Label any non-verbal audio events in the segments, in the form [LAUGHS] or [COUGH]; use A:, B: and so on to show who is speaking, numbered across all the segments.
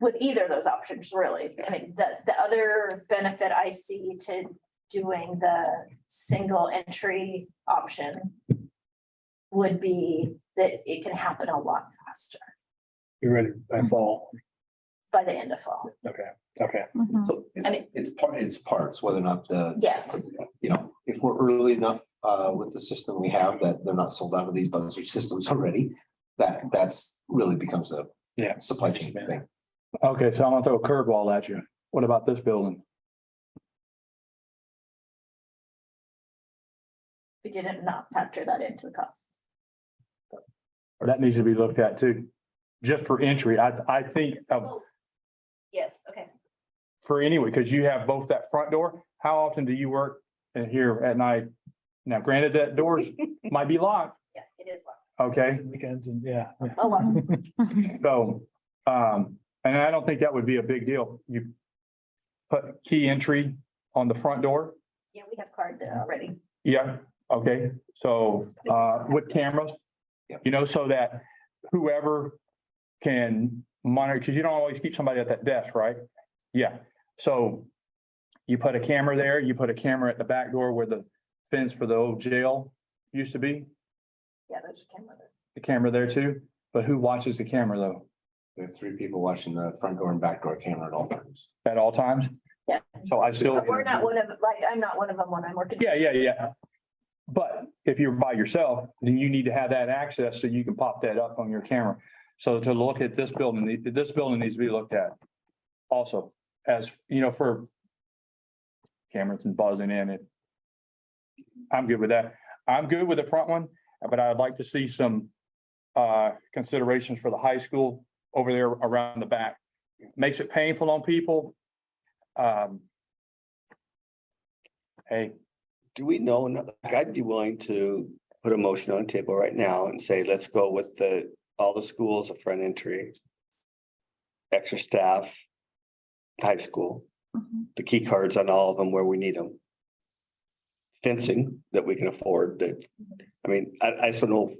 A: with either of those options, really. I mean, the, the other benefit I see to doing the single entry option would be that it can happen a lot faster
B: You're ready by fall.
A: by the end of fall.
B: Okay, okay.
C: So it's, it's part, it's parts, whether or not the,
A: Yeah,
C: you know, if we're early enough uh with the system we have that they're not sold out of these buzzer systems already. That that's really becomes a
B: Yeah.
C: supply chain thing.
B: Okay, so I'm gonna throw a curveball at you. What about this building?
A: we didn't not factor that into the cost.
B: That needs to be looked at too. Just for entry, I, I think of,
A: Oh, Yes, okay.
B: for anyway, because you have both that front door. How often do you work in here at night? Now granted, that [LAUGHS] doors might be locked,
A: Yeah, it is.
B: okay?
D: Weekends and yeah.
A: Oh, well,
B: So, um, and I don't think that would be a big deal. You put key entry on the front door.
A: yeah, we have card there already.
B: Yeah, okay, so uh with cameras,
C: Yep.
B: you know, so that whoever can monitor, because you don't always keep somebody at that desk, right? Yeah, so you put a camera there, you put a camera at the back door where the fence for the old jail used to be,
A: Yeah, there's a camera there.
B: the camera there too, but who watches the camera though,
C: There are three people watching the front door and back door camera at all times.
B: at all times?
A: Yeah.
B: So I still.
A: But We're not one of, like, I'm not one of them when I'm working.
B: Yeah, yeah, yeah. But if you're by yourself, then you need to have that access so you can pop that up on your camera. So to look at this building, this building needs to be looked at also as, you know, for cameras and buzzing in it. I'm good with that. I'm good with the front one, but I'd like to see some uh, considerations for the high school over there around the back. Makes it painful on people. Um, Hey,
E: Do we know, like, I'd be willing to put a motion on the table right now and say, let's go with the, all the schools of front entry. Extra staff. High school, the key cards on all of them where we need them. Fencing that we can afford that, I mean, I, I just don't know.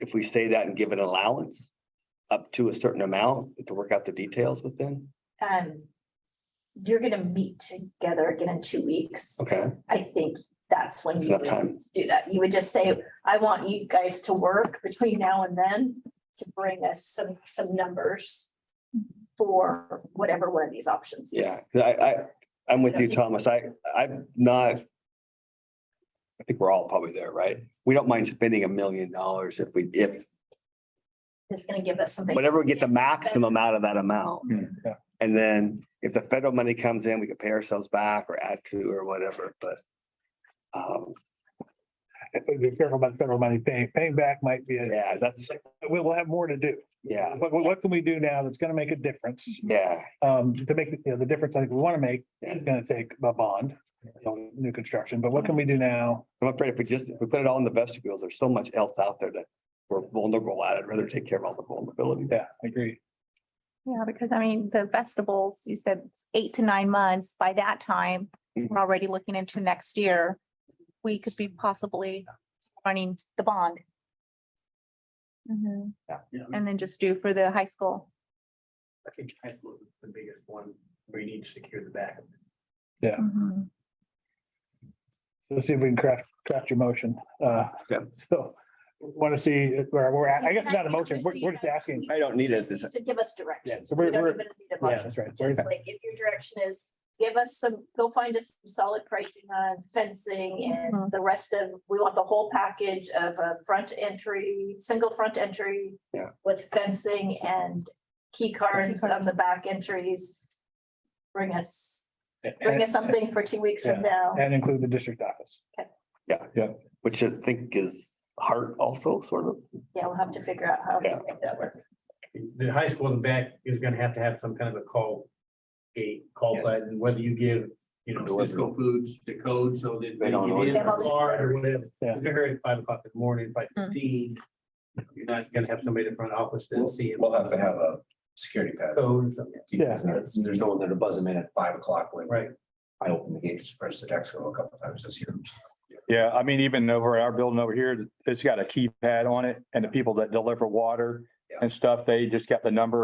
E: If we say that and give an allowance up to a certain amount to work out the details with them,
A: Um, you're gonna meet together again in two weeks.
E: okay,
A: I think that's when
E: It's
A: you
E: enough
A: would
E: time.
A: do that. You would just say, I want you guys to work between now and then to bring us some, some numbers for whatever one of these options.
E: Yeah, 'cause I, I, I'm with you, Thomas. I, I'm not. I think we're all probably there, right? We don't mind spending a million dollars if we, if,
A: It's gonna give us something.
E: whatever, we get the maximum out of that
A: Oh.
E: amount.
B: yeah.
E: And then if the federal money comes in, we can pay ourselves back or add to or whatever, but. Um,
D: Be careful about federal money. Paying, paying back might be, a-
E: yeah, that's,
D: we will have more to do.
E: yeah,
D: But what- what can we do now that's gonna make a difference?
E: yeah,
D: Um, to make, you know, the difference I think we wanna make is gonna take a bond, so new construction, but what can we do now?
E: I'm afraid if we just, if we put it all in the vestibules, there's so much else out there that. We're vulnerable at. I'd rather take care of all the vulnerability.
D: Yeah, I agree.
F: Yeah, because I mean, the festivals, you said it's eight to nine months. By that time,
G: Mm-hmm.
F: we're already looking into next year. We could be possibly running the bond. Mhm.
G: Yeah.
F: And then just do for the high school.
G: I think high school is the biggest one where you need to secure the back.
F: Mhm.
D: So let's see if we can craft, craft your motion. Uh,
E: Okay.
D: so wanna see where we're at. I guess not a motion. We're,
A: Just so you
D: we're just
A: know.
D: asking.
E: I don't need us.
A: To give us direction.
D: Yeah, so we're- we're- Yeah,
A: Just
D: that's right. We're-
A: like if your direction is, give us some, go find us some solid pricing on fencing and
F: Mhm.
A: the rest of, we want the whole package of a front entry, single front entry.
E: Yeah.
A: With fencing and key cards on
F: cards.
A: the back entries. Bring us, bring
D: And-
A: us something for two weeks from now.
D: And include the district office.
E: Which I think is heart also sort of.
A: Yeah, we'll have to figure out how
E: Yeah.
A: to make that work.
G: The high school in the back is gonna have to have some kind of a call gate, call
C: Yes.
G: button, whether you give, you know,
C: Delivery.
G: Cisco Foods the code so that
C: They
G: they
C: don't
G: get in
A: order.
G: or card or whatever.
D: Yeah.
G: If They're here at five o'clock in the morning, five fifteen. You're not gonna have somebody in the front office then see.
C: We'll have to have a security pad.
G: Codes. and-
D: Yeah.
C: There's there's no one there to buzz them in at five o'clock when
G: Right.
C: I opened the gates for us at Exco a couple times this year.
B: Yeah, I mean, even over at our building over here, it's got a keypad on it and the people that deliver water and stuff, they just got the number